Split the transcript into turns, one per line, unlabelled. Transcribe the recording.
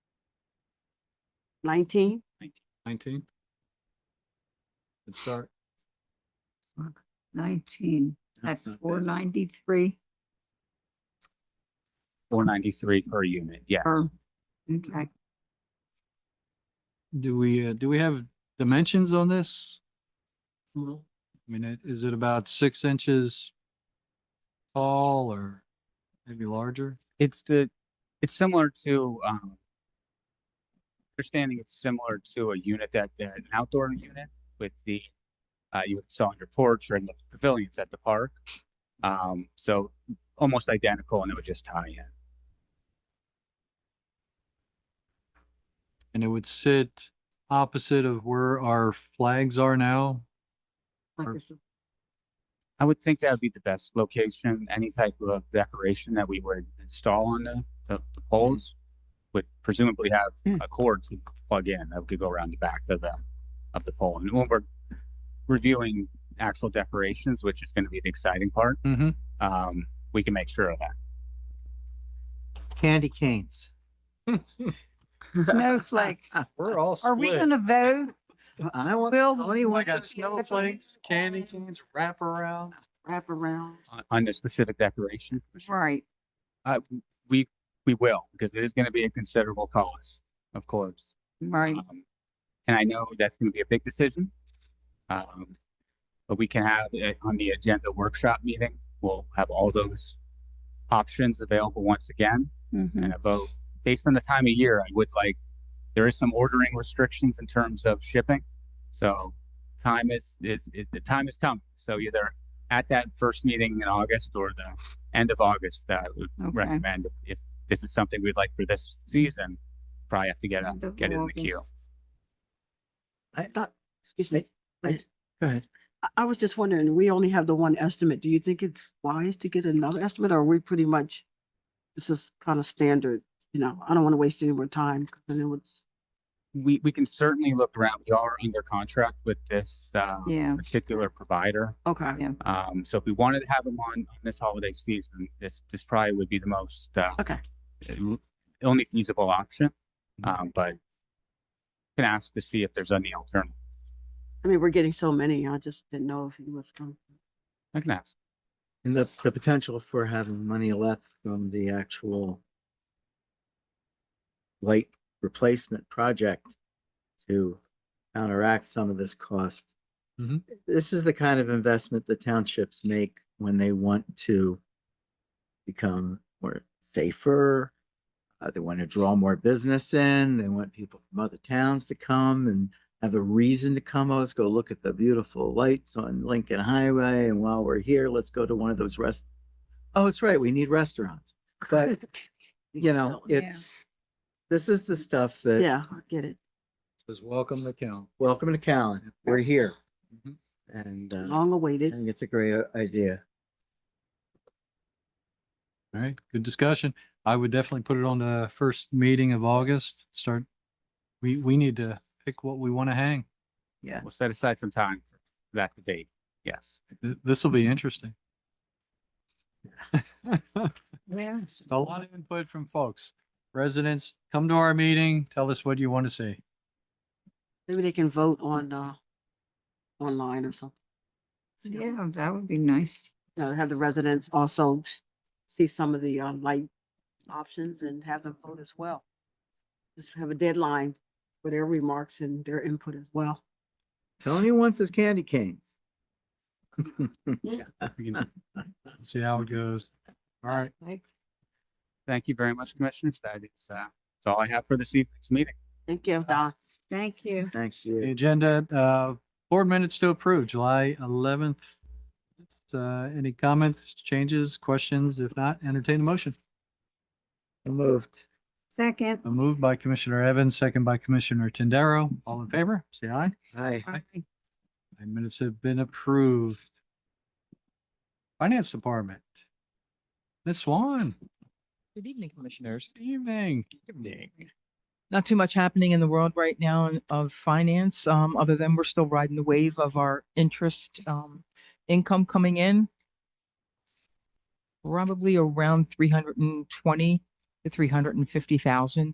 Nineteen?
Nineteen? Good start.
nineteen,
That's
that's
not
four
bad.
ninety-three
Four ninety-three per unit, yeah.
or, okay.
Do we, uh, do we have dimensions on this? I mean, it- is it about six inches tall or maybe larger?
It's the, it's similar to, um, understanding it's similar to a unit that, that an outdoor unit with the, uh, you would saw on your porch or in the pavilions at the park. Um, so almost identical and it would just tie in.
And it would sit opposite of where our flags are now?
Like
Or-
it's a-
I would think that would be the best location. Any type of decoration that we would install on the, the, the poles would presumably have
Hmm.
a cord to plug in that could go around the back of the, of the pole. And when we're reviewing actual decorations, which is going to be the exciting part,
Mm-hmm.
um, we can make sure of that.
Candy canes.
Snowflakes.
We're all
Are we gonna vote?
I want,
Bill,
Tony
you
wants
want
got
some candy
snowflakes, candy canes, wraparound.
Wrap around.
On- On the specific decoration,
Right,
uh, we, we will, because it is going to be a considerable cost, of course.
right.
Um, And I know that's going to be a big decision. Um, But we can have it on the agenda workshop meeting. We'll have all those options available once again
Mhm.
and a vote. Based on the time of year, I would like, there is some ordering restrictions in terms of shipping. So time is, is, it- the time has come. So either at that first meeting in August or the end of August, that I would
Okay.
recommend if- if this is something we'd like for this season, probably have to get, a-
End of
get it in the
August.
queue.
I
Not- Excuse me.
I- go ahead.
I, I was just wondering, we only have the one estimate. Do you think it's wise to get another estimate or are we pretty much? This is kind of standard, you know, I don't want to waste any more time because then it was,
we, we can certainly look around. We are under contract with this uh,
Yeah,
particular provider.
okay.
Yeah.
Um, so if we wanted to have them on, on this holiday season, this this probably would be the most uh,
Okay.
l- only feasible option. Um, but can ask to see if there's any alternative.
I mean, we're getting so many. I just didn't know if he was going.
I can ask.
And the, the potential for having money left from the actual light replacement project to counteract some of this cost.
Mhm.
This is the kind of investment the townships make when they want to become more safer. Uh, they want to draw more business in. They want people from other towns to come and have a reason to come. Oh, Let's go look at the beautiful lights on Lincoln Highway. And while we're here, let's go to one of those rest. Oh, it's right. We need restaurants. But, you know,
Yeah.
it's, this is the stuff that
Yeah, I get it.
Says welcome to Cal.
Welcome to Callan. We're here.
Mhm.
And uh,
Long
I
awaited.
think it's a great uh, idea.
All right, good discussion. I would definitely put it on the first meeting of August. Start, we, we need to pick what we want to hang.
Yeah.
We'll set aside some time for that debate. Yes.
Th- This will be interesting. A lot of input from folks. Residents, come to our meeting, tell us what you want to see.
Maybe they can vote on, uh, online or something.
yeah, that would be nice.
uh, have the residents also s- see some of the, uh, light options and have them vote as well. Just have a deadline for their remarks and their input as well.
Tony wants his candy canes.
We can-
See how it goes. All right.
Thank you very much, Commissioners. That is, uh, that's all I have for this evening's meeting.
Thank you, Don.
Thank you.
Thanks,
The
you.
agenda, uh, board minutes to approve, July eleventh. Uh, any comments, changes, questions? If not, entertain the motion.
Moved.
Second.
A move by Commissioner Evans, second by Commissioner Tindaro. All in favor, say aye.
Hi.
Aye.
My minutes have been approved. Finance Department. Ms. Swan,
Good evening, Commissioners.
good evening.
Not too much happening in the world right now in- of finance, um, other than we're still riding the wave of our interest, um, income coming in. Probably around three hundred and twenty to three hundred and fifty thousand